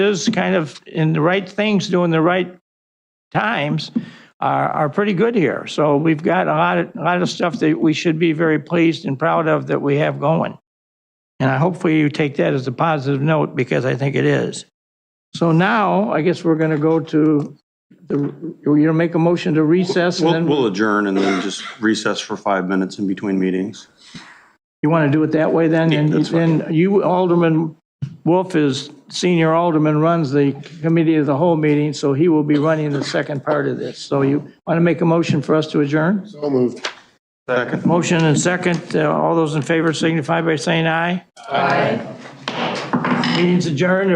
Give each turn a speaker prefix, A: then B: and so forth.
A: is kind of in the right things, doing the right times are, are pretty good here. So we've got a lot of, a lot of stuff that we should be very pleased and proud of that we have going. And I hopefully you take that as a positive note because I think it is. So now I guess we're going to go to the, you're going to make a motion to recess and
B: We'll,
A: then
B: we'll adjourn and then just recess for five minutes in between meetings.
A: you want to do it that way then?
B: Yeah,
A: And
B: that's fine.
A: then you, Alderman Wolf is senior alderman, runs the committee of the whole meeting, so he will be running the second part of this. So you want to make a motion for us to adjourn?
C: So moved.
B: Second.
A: Motion and second, Uh, all those in favor signify by saying aye. Aye. Meeting's adjourned.